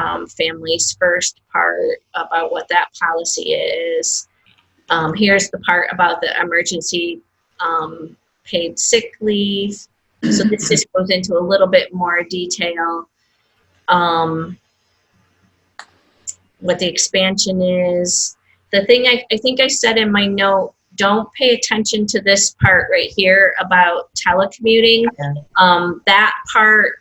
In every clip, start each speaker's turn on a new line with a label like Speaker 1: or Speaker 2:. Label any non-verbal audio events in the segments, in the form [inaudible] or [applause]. Speaker 1: um, families first part about what that policy is. Um, here's the part about the emergency um, paid sick leave. So this just goes into a little bit more detail. Um, what the expansion is. The thing I, I think I said in my note, don't pay attention to this part right here about telecommuting.
Speaker 2: Yeah.
Speaker 1: Um, that part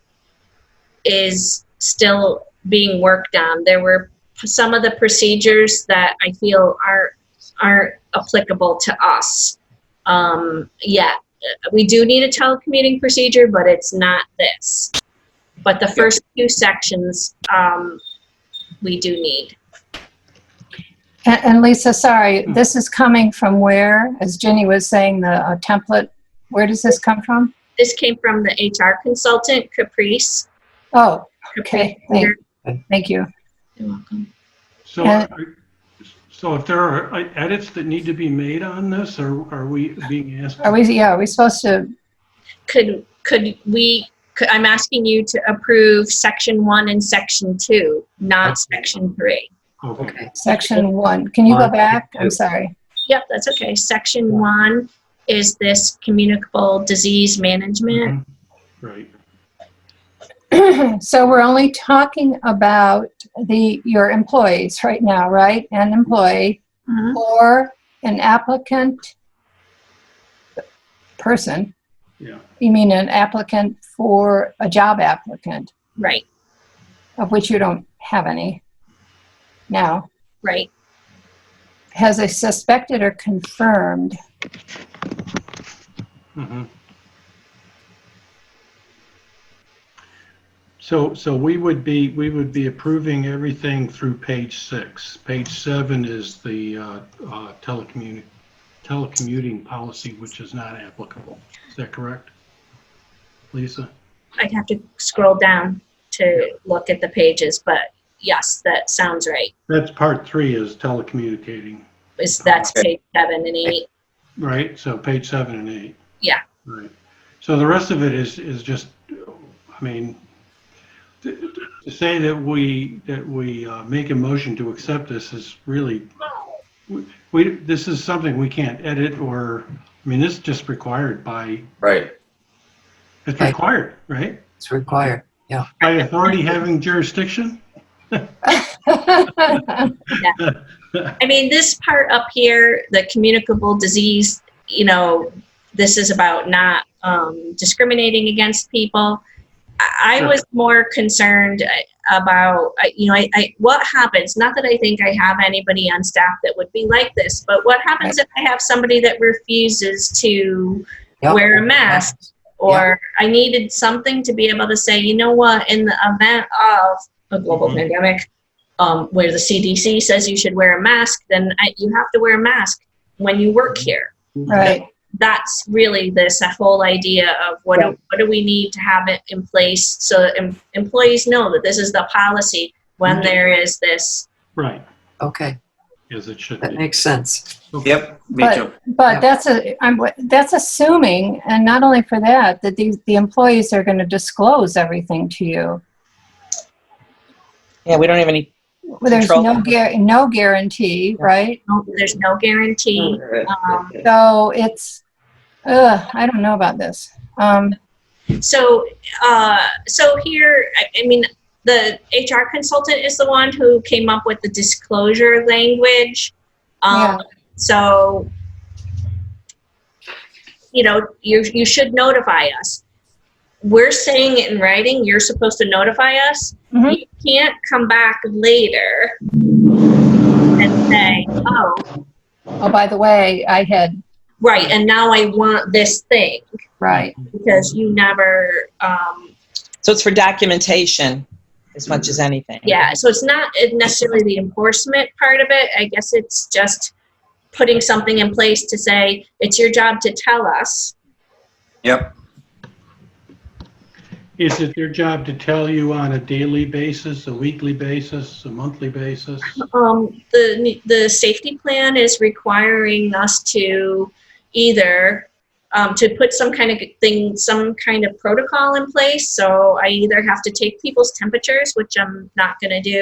Speaker 1: is still being worked on. There were p- some of the procedures that I feel are aren't applicable to us um, yet. Uh, We do need a telecommuting procedure, but it's not this. But the first few sections um, we do need.
Speaker 3: And, and Lisa, sorry, this is coming from where? As Ginny was saying, the uh, template, where does this come from?
Speaker 1: This came from the HR consultant, Caprice.
Speaker 3: Oh, okay, thank, thank you.
Speaker 1: You're welcome.
Speaker 4: So,
Speaker 3: Yeah.
Speaker 4: are- so if there are uh, edits that need to be made on this, or are we being asked?
Speaker 3: Are we, yeah, are we supposed to,
Speaker 1: Could, could we, could- I'm asking you to approve section one and section two, not section three.
Speaker 4: Oh, Okay,
Speaker 3: section one, can you go
Speaker 5: Alright.
Speaker 3: back? I'm sorry. [clears throat]
Speaker 1: Yep, that's okay. Section one is this communicable disease management.
Speaker 4: Mhm. Right,
Speaker 3: So we're only talking about the, your employees right now, right? An employee
Speaker 1: Mhm.
Speaker 3: or an applicant person?
Speaker 4: yeah.
Speaker 3: You mean an applicant for, a job applicant?
Speaker 1: Right,
Speaker 3: of which you don't have any now,
Speaker 1: right.
Speaker 3: has a suspected or confirmed, [laughs]
Speaker 4: Mhm. So, so we would be, we would be approving everything through page six. Page seven is the uh, uh, telecommu, telecommuting policy, which is not applicable. Is that correct? Lisa?
Speaker 1: I'd have to scroll down to look at the pages, but yes, that sounds right.
Speaker 4: That's part three is telecommunicating.
Speaker 1: Is that's page seven and eight?
Speaker 4: Right, so page seven and eight.
Speaker 1: Yeah.
Speaker 4: Right, so the rest of it is, is just, I mean, to to say that we, that we uh, make a motion to accept this is really, we- we, this is something we can't edit or, I mean, this is just required by,
Speaker 5: Right.
Speaker 4: it's
Speaker 2: Right.
Speaker 4: required, right?
Speaker 2: It's required.
Speaker 4: By authority having jurisdiction?
Speaker 1: I mean, this part up here, the communicable disease, you know, this is about not um, discriminating against people. I, I was more concerned uh, about, uh, you know, I, I, what happens, not that I think I have anybody on staff that would be like this, but what happens if I have somebody that refuses to
Speaker 2: Yep.
Speaker 1: wear a mask? Or I needed something to be able to say, you know what, in the event of a global
Speaker 4: Mhm.
Speaker 1: pandemic, um, where the CDC says you should wear a mask, then I, you have to wear a mask when you work here.
Speaker 3: right?
Speaker 1: That's really this a whole idea of what do, what do we need to have it in place so that em- employees know that this is the policy when
Speaker 4: Mhm.
Speaker 1: there is this.
Speaker 4: Right,
Speaker 2: Okay,
Speaker 4: as it should
Speaker 2: that
Speaker 4: be.
Speaker 2: makes sense.
Speaker 5: Yep, me too.
Speaker 3: But that's a, I'm, that's assuming, and not only for that, that the, the employees are gonna disclose everything to you.
Speaker 6: Yeah, we don't have any.
Speaker 3: Well, There's
Speaker 6: Control.
Speaker 3: no guar, no guarantee, right?
Speaker 1: no- There's no guarantee. Um,
Speaker 3: So it's, ugh, I don't know about this. Um,
Speaker 1: So, uh, so here, I, I mean, the HR consultant is the one who came up with the disclosure language. Um, So, you know, you you should notify us. We're saying it in writing. You're supposed to notify us.
Speaker 3: Mhm.
Speaker 1: You can't come back later and say, "Oh,
Speaker 3: oh, by the way, I had,
Speaker 1: right," and now I want this thing
Speaker 3: right,
Speaker 1: because you never um,
Speaker 6: So it's for documentation as much as anything.
Speaker 1: Yeah, so it's not necessarily the enforcement part of it. I guess it's just putting something in place to say, it's your job to tell us.
Speaker 5: Yep,
Speaker 4: Is it their job to tell you on a daily basis, a weekly basis, a monthly basis?
Speaker 1: Um, the, the safety plan is requiring us to either, um, to put some kind of thing, some kind of protocol in place. So I either have to take people's temperatures, which I'm not gonna do,